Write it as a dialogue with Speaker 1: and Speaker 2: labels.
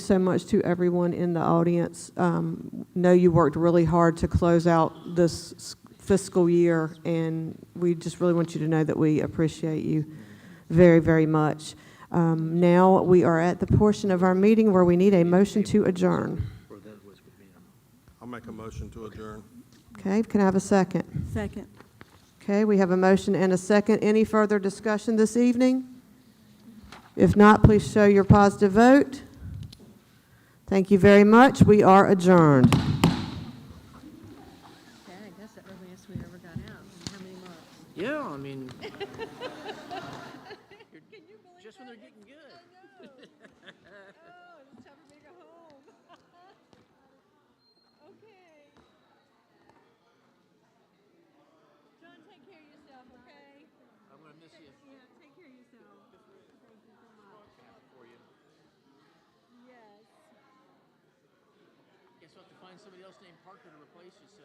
Speaker 1: so much to everyone in the audience. Um, Know you worked really hard to close out this fiscal year, and we just really want you to know that we appreciate you very, very much. Um, Now, we are at the portion of our meeting where we need a motion to adjourn.
Speaker 2: I'll make a motion to adjourn.
Speaker 1: Okay, can I have a second?
Speaker 3: Second.
Speaker 1: Okay, we have a motion and a second. Any further discussion this evening? If not, please show your positive vote. Thank you very much. We are adjourned.
Speaker 3: Dang, that's the earliest we ever got out in how many months?
Speaker 4: Yeah, I mean. you're- Just when they're getting good.
Speaker 3: Oh, it's time for me to go home. Okay. John, take care of yourself, okay?
Speaker 4: I'm gonna miss you.
Speaker 3: Yeah, take care of yourself. Thank you so much.
Speaker 4: For you.
Speaker 3: Yes.
Speaker 4: Guess we'll have to find somebody else named Parker to replace you, so.